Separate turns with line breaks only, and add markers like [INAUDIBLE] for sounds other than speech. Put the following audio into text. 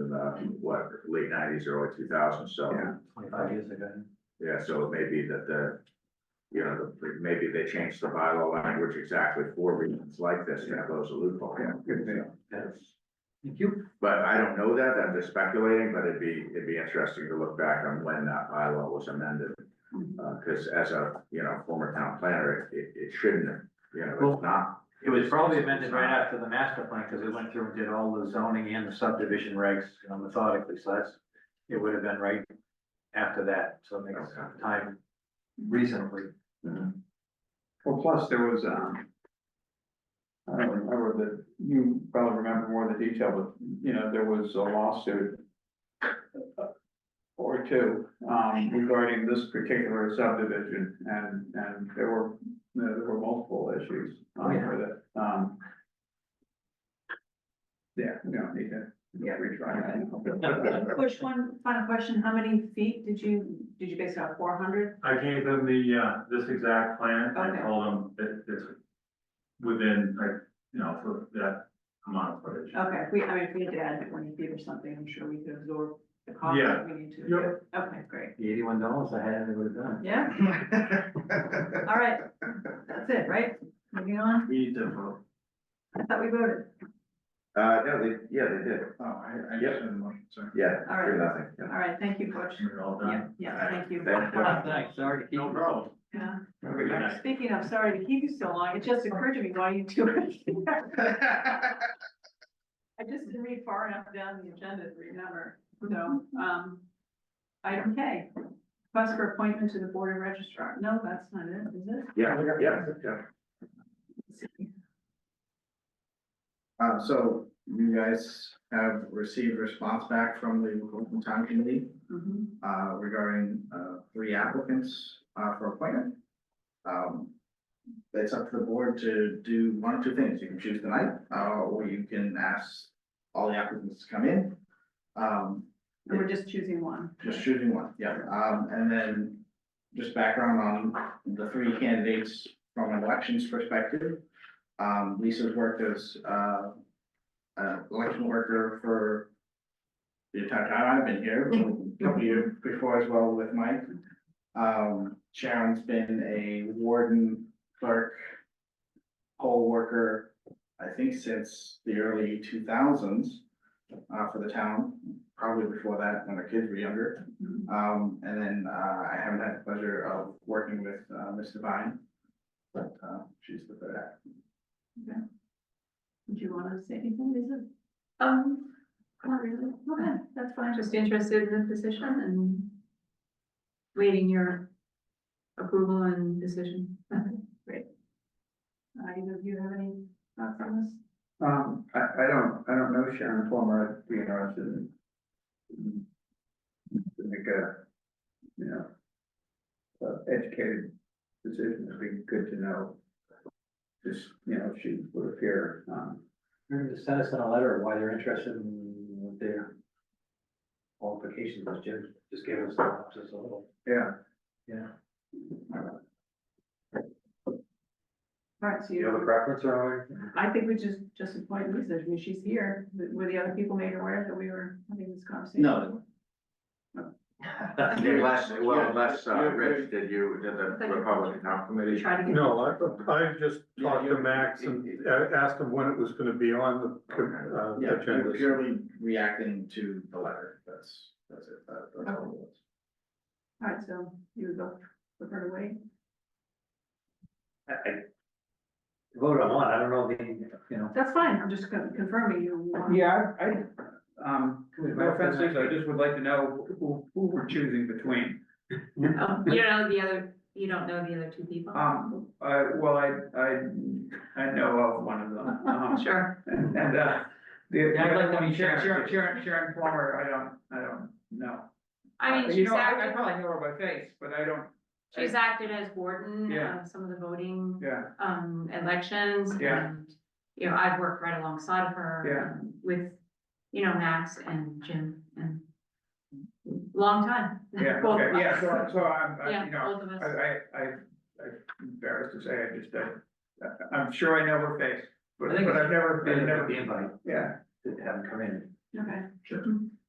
uh, what, late nineties, early two thousands, so.
Yeah.
twenty-five years ago.
Yeah, so it may be that the, you know, the- maybe they changed the bylaw language exactly for reasons like this, to close a loophole.
Yeah, good deal.
Thank you.
But I don't know that, I'm just speculating, but it'd be, it'd be interesting to look back on when that bylaw was amended. Uh, cause as a, you know, former town planner, it, it, it shouldn't have, you know,
Well-
it's not.
It was probably amended right after the master plan, because it went through and did all the zoning and the subdivision regs, you know, methodically, so that's, it would have been right after that, so it makes
Okay.
time reasonably.
Well, plus there was, um. I don't remember the, you probably remember more of the detail, but, you know, there was a lawsuit. uh, Or two, um, regarding this particular subdivision and, and there were, there were multiple issues um, with it, um. Yeah, we don't need to retry that.
Push one final question, how many feet did you, did you base it on four hundred?
I gave them the, uh, this exact plan, I
Okay.
told them that it's within, like, you know, for that amount of footage.
Okay, if we, I mean, if we had to add twenty feet or something, I'm sure we could absorb the cost
Yeah.
if we need to.
Yep.
Okay, great,
The eighty-one dollars I had, it would have done.
yeah, all right, that's it, right? Moving on,
We need to vote.
I thought we voted,
Uh, no, they, yeah, they did,
Oh, I,
I just
the motion, sorry.
yeah,
All right.
three, nothing, yeah.
all right, thank you, Butch.
We're all
Yeah,
done.
yeah, thank you.
Thank you.
[LAUGHS] Thanks, sorry to keep.
No problem.
Yeah.
Have a good night.
Speaking of, sorry to keep you so long, it just occurred to me while you two were here. I just didn't read far enough down the agenda to remember, so,
Mm-hmm.
um, item K. Request for appointment to the board of registrar, no, that's not it, is it?
Yeah, yeah, yeah.
[LAUGHS] Uh, so you guys have received response back from the local town committee,
Mhm.
uh, regarding, uh, three applicants, uh, for appointment. Um, it's up to the board to do one or two things. You can choose tonight, uh, or you can ask all the applicants to come in. Um,
And we're just choosing one.
just choosing one, yeah, um, and then just background on the three candidates from an elections perspective. Um, Lisa's worked as, uh, an election worker for the entire time I've been here, a couple years before as well with Mike. Um, Sharon's been a warden clerk, poll worker, I think since the early two thousands, uh, for the town, probably before that, when the kids were younger.
Mhm.
Um, and then, uh, I haven't had the pleasure of working with, uh, Ms. Devine, but, uh, she's the third act.
Did you wanna say anything, Lisa?
Um,
Not really. Okay, that's
I'm
fine,
just interested in the position and waiting your approval and decision.
Uh, either of you have any thoughts on this?
Um, I, I don't, I don't know Sharon Plummer, I'd be interested in. To make a, you know. Uh, educated decision, it'd be good to know. Just, you know, if she would appear, um,
Remember to send us in a letter why they're interested in what their qualifications, was. Jim just gave us just a little.
yeah,
All right, so
Do you have a
you,
preference or?
I think we just, just appoint Lisa, I mean, she's here, were the other people made aware that we were having this conversation?
No.
Unless, well,
Yeah.
unless, uh,
Yeah,
Rich, did you, did the Republican Town Committee?
Try to get.
No, I, I just
Yeah,
talked to
you're-
Max and uh, asked him when it was gonna be on the com-
Yeah,
uh,
you're
agenda.
purely reacting to the letter, that's, that's it, that- that's all it was.
All right, so you would go, prefer to wait?
I, I vote on one, I don't know the, you know.
That's fine, I'm just con- confirming you. want-
yeah, I, I, um, no offense, Lisa, I just would like to know who, who we're choosing between.
Um,
Oh, You don't know the other, you don't know the other two people?
Um, I, well, I, I, I know of one of them, um,
Sure.
And, and, uh, the,
Yeah, I'd like to meet
Sharon, Sharon,
Sharon.
Sharon, Sharon Plummer, I don't, I don't know.
I
Uh,
mean,
you
she's
know, I, I
acted,
probably know her by face, but I don't,
she's acted as warden
Yeah.
of some of the voting,
yeah,
[LAUGHS] um, elections.
Yeah.
and You know, I've worked right alongside of her um, with, you know, Max and Jim and long time.
yeah,
[LAUGHS] Both of
okay, yeah,
us.
so, so I'm, I,
Yeah,
you know,
both of us.
I, I, I, I'm embarrassed to say, I just, I, I'm sure I know her face, but,
I think
but I've never,
Better
I've
than
never,
the invite,
yeah,
to have them come in.
Okay.
Sure.
Mhm.